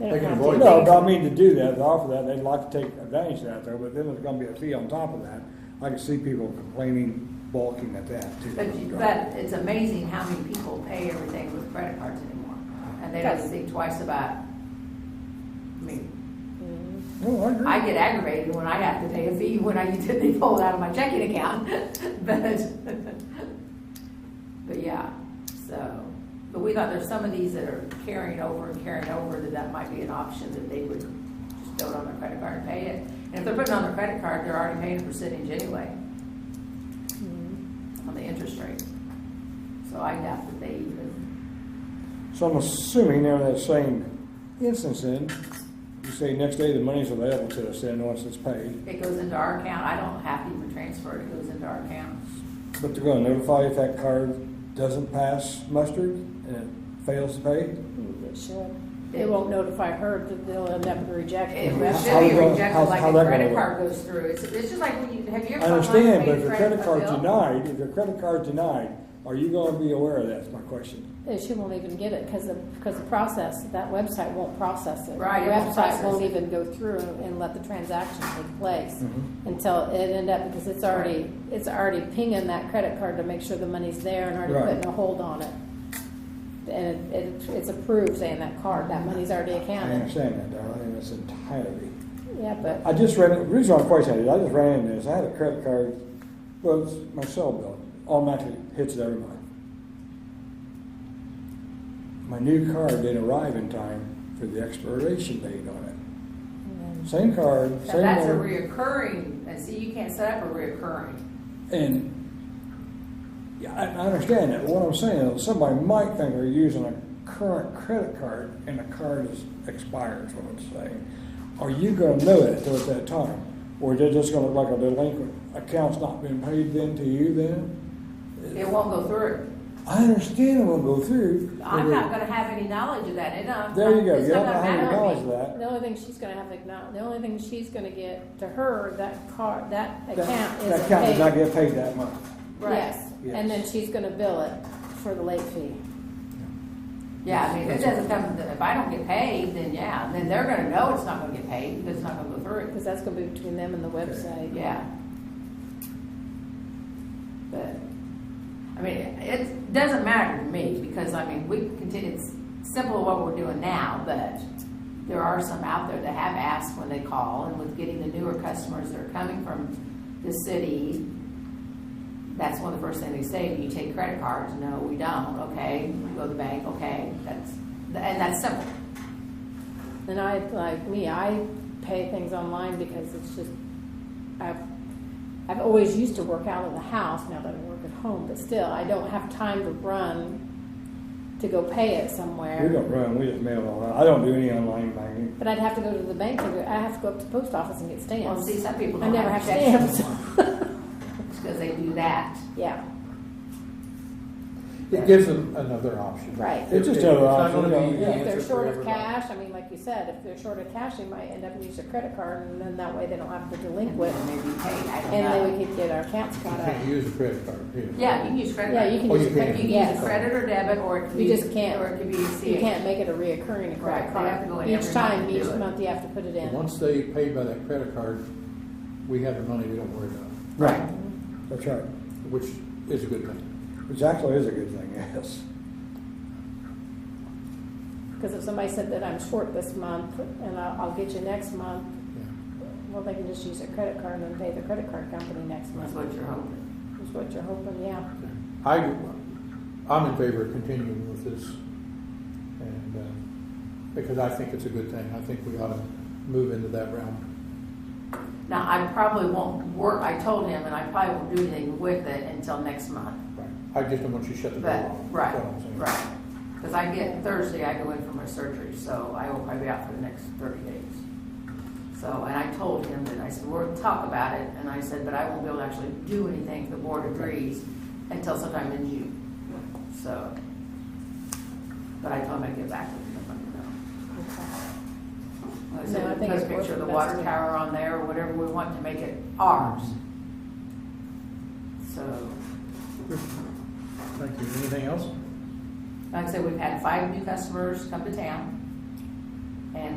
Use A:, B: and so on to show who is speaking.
A: They don't
B: They can
A: have
B: avoid
A: to.
C: No,
B: that.
C: but I mean, to do that, to offer that, they'd like to take advantage of that though, but then there's gonna be a fee on top of that. I can see people complaining, balking at that too.
D: But, you- but it's amazing how many people pay everything with credit cards anymore, and they don't
A: Yes.
D: think twice about, I mean,
C: No, Oh, I agree.
D: I get aggravated when I have to pay a fee when I utility pull it out of my checking account, but, but yeah, so. But we thought there's some of these that are carrying over and carrying over, that that might be an option, that they would just throw it on their credit card and pay it. And if they're putting it on their credit card, they're already paying a percentage anyway on the interest rate. So I doubt that they even,
C: So I'm assuming in that same instance then, you say next day the money's available to us then, once it's paid.
D: it goes into our account, I don't have to even transfer it, it goes into our account.
C: But they're gonna notify if that card doesn't pass mustard and it fails to pay.
A: Mm, It should. They won't notify her that they'll end up
D: It
A: rejecting
D: would
A: it.
C: was-
D: should be
C: How- how-
D: rejected like
C: how
D: a
C: that
D: credit
C: gonna
D: card goes through, it's, it's just like when you, have you
C: I
D: ever? gone online and
C: understand, but
D: paid
C: if
D: a
C: your credit card
D: bill?
C: denied, if your credit card denied, are you gonna be aware of that, is my question.
A: And She won't even get it because of, because the process, that website won't process it.
D: Right,
A: The
D: it won't
A: website
D: process
A: won't
D: it.
A: even go through and and let the transaction take place
C: Mhm.
A: until it end up, because it's already, it's already pinging that credit card to make sure the money's there and already
C: Right.
A: putting a hold on it. And it, it- it's approved saying that card, that money's already
C: I
A: accounted.
C: understand that, darling, in its entirety.
A: Yeah, but.
C: I just ran, the reason I'm questioning it, I just ran into this, I had a credit card, well, it's my cell bill, automatically hits it every month. My new card didn't arrive in time for the expiration date on it. Same card,
D: Mm-hmm. Now,
C: same
D: that's a
C: number,
D: reoccurring, and see, you can't set up a reoccurring,
C: and, yeah, I, I understand that, but what I'm saying is, somebody might think they're using a current credit card and the card is expired, is what I'm saying. Are you gonna know that though at that time? Or they're just gonna look like a delinquent, account's not been paid then to you then?
D: it won't go through.
C: I understand it won't go through. but
D: I'm
C: they-
D: not gonna have any knowledge of that, and I'm.
C: There you go,
D: it's
C: you
D: not
C: don't
D: gonna
C: have any
D: matter to me.
C: knowledge of that.
A: The only thing she's gonna have to acknowledge, the only thing she's gonna get to her, that car, that
C: That-
A: account
C: That
A: is
C: account does not
A: paid.
C: get paid that month.
D: Right.
A: Yes,
C: Yes.
A: and then she's gonna bill it for the late fee.
D: Yeah, I mean, if it doesn't come, if I don't get paid, then yeah, then they're gonna know it's not gonna get paid, because it's not gonna go through.
A: Because that's gonna be between them and the website.
D: Yeah. But, I mean, it doesn't matter to me, because, I mean, we continue, it's simple what we're doing now, but there are some out there that have asked when they call, and with getting the newer customers that are coming from the city, that's one of the first things they say, do you take credit cards? No, we don't, okay, we go to the bank, okay, that's, and that's simple.
A: And I, like me, I pay things online because it's just, I've, I've always used to work out of the house, now that I work at home, but still, I don't have time to run to go pay it somewhere.
C: We don't run, we just mail all out. I don't do any online banking.
A: But I'd have to go to the bank and go, I have to go up to the post office and get stamps.
D: Well, see, some people
A: I
D: don't
A: never
D: have
A: have
D: checks,
A: stamps.
D: because they do that.
A: yeah,
B: It gives them another option.
A: Right.
C: It's just
B: It-
C: another
B: not
C: option,
B: gonna
C: yeah.
B: be the
C: Yeah,
A: if they're
B: answer for
A: short of
B: everybody.
A: cash, I mean, like you said, if they're short of cash, they might end up using their credit card, and then that way they don't have the delinquent,
D: And maybe paid, I don't know.
A: and then we could get our accounts
B: You
A: caught
B: can't
A: up.
B: use a credit card, period.
D: Yeah, you can use credit.
A: Yeah, you can
B: Oh,
A: use
B: you
A: a
B: can.
A: credit,
D: You can use credit or debit, or it can be.
A: You just can't-
D: Or it can be
A: You
D: CH.
A: can't make it a reoccurring credit
D: Right, they have to go
A: card.
D: in
A: Each
D: every
A: time,
D: month and
A: each
D: do it.
A: month, you have to put it in.
B: Once they pay by that credit card, we have the money we don't worry about,
C: Right. That's right,
B: which is a good thing.
C: which actually is a good thing, yes.
A: Because if somebody said that I'm short this month, and I'll, I'll get you next month,
B: Yeah.
A: well, they can just use their credit card and then pay the credit card company next
D: That's
A: month.
D: what you're hoping.
A: Is what you're hoping, yeah.
B: I, I'm in favor of continuing with this, and, uh, because I think it's a good thing. I think we ought to move into that realm.
D: Now, I probably won't work, I told him, and I probably won't do anything with it until next month.
B: I just don't want you to shut the door
D: But,
B: off. That's
D: right,
B: all I'm saying.
D: right. Because I get, Thursday, I go in for my surgery, so I will probably be out for the next thirty days. So, and I told him that, I said, we will talk about it, and I said, but I won't be able to actually do anything if the board agrees until sometime in June. So, but I told him I'd get back with him, let me know. Like I
A: No, I think
D: said, put a
A: it's worth
D: picture of the
A: the
D: water
A: best.
D: tower on there, or whatever we want to make it ours. So,
B: Thank you. Anything else?
D: like I said, we've had five new customers come to town. and